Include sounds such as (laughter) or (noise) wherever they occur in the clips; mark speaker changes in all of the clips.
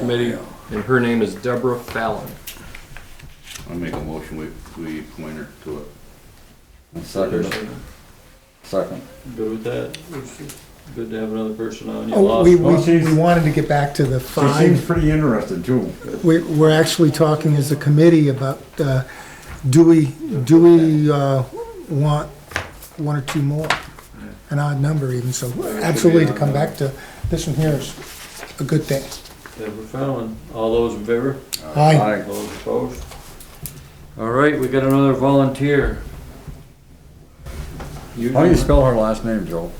Speaker 1: Committee, and her name is Deborah Fallon.
Speaker 2: I make a motion, we, we appoint her to it.
Speaker 3: Suckers, second.
Speaker 4: Good with that? Good to have another person on. You
Speaker 5: Oh, we,
Speaker 4: lost
Speaker 5: we
Speaker 3: Well, she's-
Speaker 5: we wanted to get back to the
Speaker 3: She seems
Speaker 5: five.
Speaker 3: pretty interested too.
Speaker 5: We, we're actually talking as a committee about, uh, do we, do we, uh, want one or two more? An odd number even, so absolutely to come back to, this one here is a good thing.
Speaker 4: Deborah Fallon. All those in favor?
Speaker 5: Aye.
Speaker 3: Aye.
Speaker 4: Those opposed? All right, we got another volunteer.
Speaker 3: How do you spell her last name, Joe?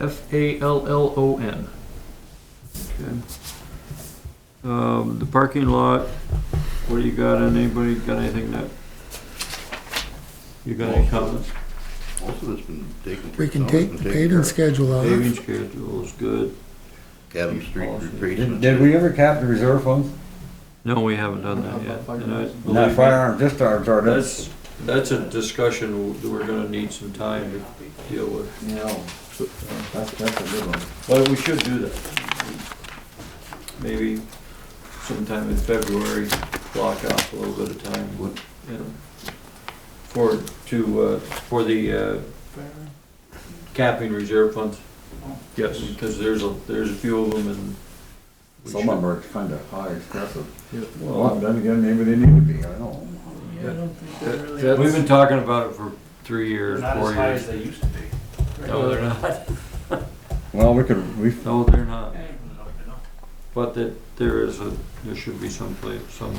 Speaker 4: F A L L O N. Um, the parking lot, what do you got, and anybody got anything that? You got any comments?
Speaker 2: Most of it's been taken. care
Speaker 5: We
Speaker 2: of.
Speaker 5: can
Speaker 2: Some
Speaker 5: take
Speaker 2: has been
Speaker 5: the
Speaker 2: taken
Speaker 5: paving
Speaker 2: care
Speaker 5: schedule
Speaker 3: Uh-huh.
Speaker 5: uh, out.
Speaker 4: Paving schedule is good.
Speaker 2: of. Adam Street replacement.
Speaker 3: Did, Oh, did we ever cap the reserve funds?
Speaker 4: No, we haven't done that yet. and I believe
Speaker 3: Not
Speaker 4: me,
Speaker 3: firearm discharge ordinance.
Speaker 4: That's, that's a discussion that we're gonna need some time to deal with,
Speaker 3: No, that's, that's a good one.
Speaker 4: but we should do that. Maybe sometime in February, block off a little bit of time,
Speaker 2: What-
Speaker 4: you know, for, to, uh, for the, uh, capping reserve funds. Yes. Because there's a, there's a few of them and. we
Speaker 3: Some of them are kinda high expressive.
Speaker 4: should-
Speaker 3: Well,
Speaker 4: Well,
Speaker 3: then again, maybe they need to be, I don't know.
Speaker 4: that- that- We've been talking about it for three years,
Speaker 6: Not
Speaker 4: four
Speaker 6: as high
Speaker 4: years.
Speaker 6: as they used to be.
Speaker 4: No, they're not.
Speaker 3: Well, we could, we,
Speaker 4: No, they're not.
Speaker 6: I don't know.
Speaker 4: But that there is a, there should be some place, some,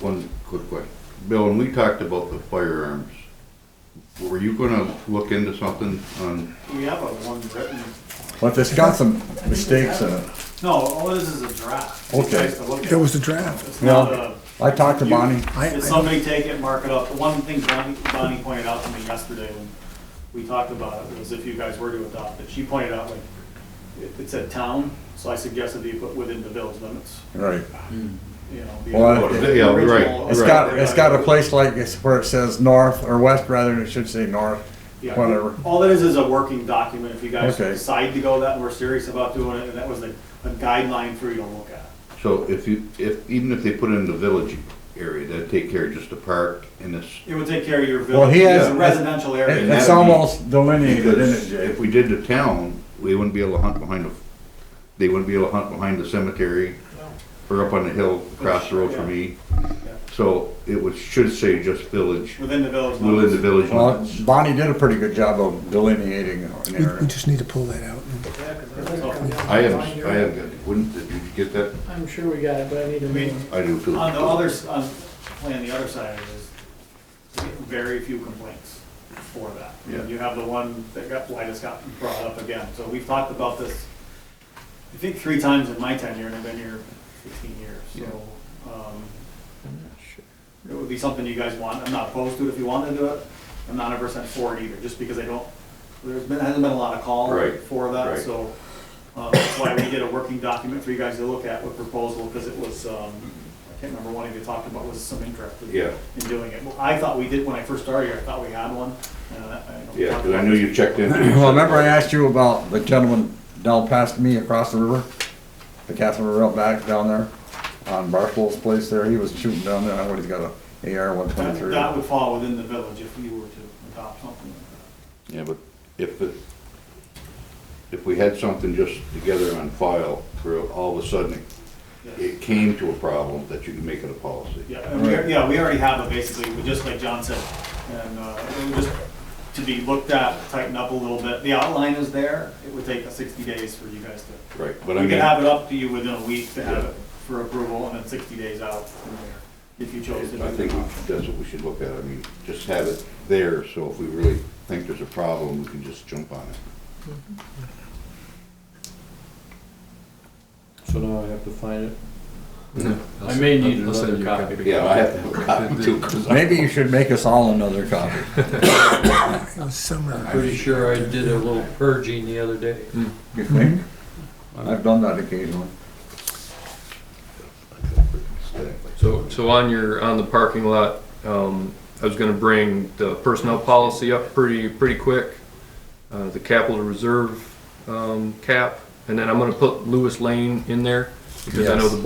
Speaker 2: One quick question. Bill, when we talked about the firearms, were you gonna look into something on,
Speaker 6: We have a one written,
Speaker 3: but it's got some mistakes in it.
Speaker 6: no, all this is a draft. It's
Speaker 3: Okay.
Speaker 6: nice to look at.
Speaker 5: There was a draft.
Speaker 6: It's not
Speaker 3: No.
Speaker 6: a,
Speaker 3: I talked to
Speaker 6: You-
Speaker 3: Bonnie,
Speaker 5: I,
Speaker 6: did
Speaker 5: I-
Speaker 6: somebody take it, mark it up? The one thing Bonnie, Bonnie pointed out to me yesterday when we talked about it was if you guys were to adopt it, she pointed out like, it, it said town, so I suggested that you put within the village limits,
Speaker 3: right.
Speaker 6: you know. the
Speaker 3: Well,
Speaker 6: original-
Speaker 2: yeah, right,
Speaker 6: original-
Speaker 3: It's got, it's got a place like, it's where it says north or west, rather than it should say north.
Speaker 6: Yeah.
Speaker 3: Whatever.
Speaker 6: All that is is a working document, if you guys
Speaker 3: Okay.
Speaker 6: decide to go that, and we're serious about doing it, and that was a, a guideline for you to look at.
Speaker 2: so if you, if, even if they put it in the village area, that'd take care of just the park and this.
Speaker 6: It would take care of your
Speaker 3: Well,
Speaker 6: village,
Speaker 3: he has-
Speaker 6: it's a residential
Speaker 3: It-
Speaker 6: area.
Speaker 3: It's almost delineated in it,
Speaker 2: Because
Speaker 3: Jay.
Speaker 2: if we did the town, we wouldn't be able to hunt behind the, they wouldn't be able to hunt behind the cemetery or up on the hill across the road from me. So it was, should say just village,
Speaker 6: Within the village.
Speaker 2: within the village
Speaker 3: Well,
Speaker 2: limits.
Speaker 3: Bonnie did a pretty good job of delineating an
Speaker 5: we, we
Speaker 3: area.
Speaker 5: just need to pull that out. and-
Speaker 6: limits. So,
Speaker 2: I have, I have, got it. wouldn't, did you get that?
Speaker 7: I'm sure we got it, but I need to
Speaker 6: I mean,
Speaker 7: read.
Speaker 2: I do feel.
Speaker 6: On the other, s- on, playing the other side of this, we get very few complaints for that.
Speaker 2: Yeah.
Speaker 6: You have the one that got, why this got brought up again, so we've talked about this, I think, three times in my tenure, and I've been here fifteen years, so, um, it would be something you guys want, I'm not opposed to it if you want to do it, I'm not a percent for it either, just because I don't, there's been, hasn't been a lot of call
Speaker 2: Right,
Speaker 6: for that,
Speaker 2: right.
Speaker 6: so. Uh, that's why we did a working document for you guys to look at with proposal, because it was, um, I can't remember one of you talked about was some interest in
Speaker 2: Yeah.
Speaker 6: in doing it. Well, I thought we did, when I first started here, I thought we had one, and I- I. don't-
Speaker 2: Yeah, because I knew you (coughs) checked in.
Speaker 3: (clears throat) Well, remember I asked you about the gentleman down past me across the river? The Catherine River out back down there on Barstool's place there. He was shooting down there. I know he's got a AR one
Speaker 6: That
Speaker 3: twenty-three.
Speaker 6: that would fall within the village if you were to adopt something like that.
Speaker 2: Yeah, but if, it- if we had something just together on file, for all of a sudden, it- it came to a problem that you can make it a policy.
Speaker 6: Yeah, and we, yeah, we already have it basically, we just like John said, and, uh, it would just to be looked at, tighten up a little bit. The outline is there, it would take sixty days for you guys to,
Speaker 2: Right, but I
Speaker 6: we
Speaker 2: mean,
Speaker 6: could have it up to you within a week to have it for approval, and then sixty days out from there, if you chose to do
Speaker 2: I
Speaker 6: that.
Speaker 2: think that's what we should look at. I mean, just have it there, so if we really think there's a problem, we can just jump on it.
Speaker 4: so now I have to find it. Mm-hmm. I may need
Speaker 1: I'll send
Speaker 4: another
Speaker 1: you a
Speaker 4: copy.
Speaker 2: Yeah, I have to have a copy too, 'cause I-
Speaker 3: Maybe you should make us all another copy.
Speaker 5: It was somewhere.
Speaker 4: Pretty sure I did a little purging the other day.
Speaker 3: You think? I've done that occasionally.
Speaker 1: So, so on your, on the parking lot, um, I was gonna bring the personnel policy up pretty, pretty quick. Uh, the capital reserve, um, cap, and then I'm gonna put Lewis Lane in there, because I know
Speaker 3: Yes.
Speaker 1: the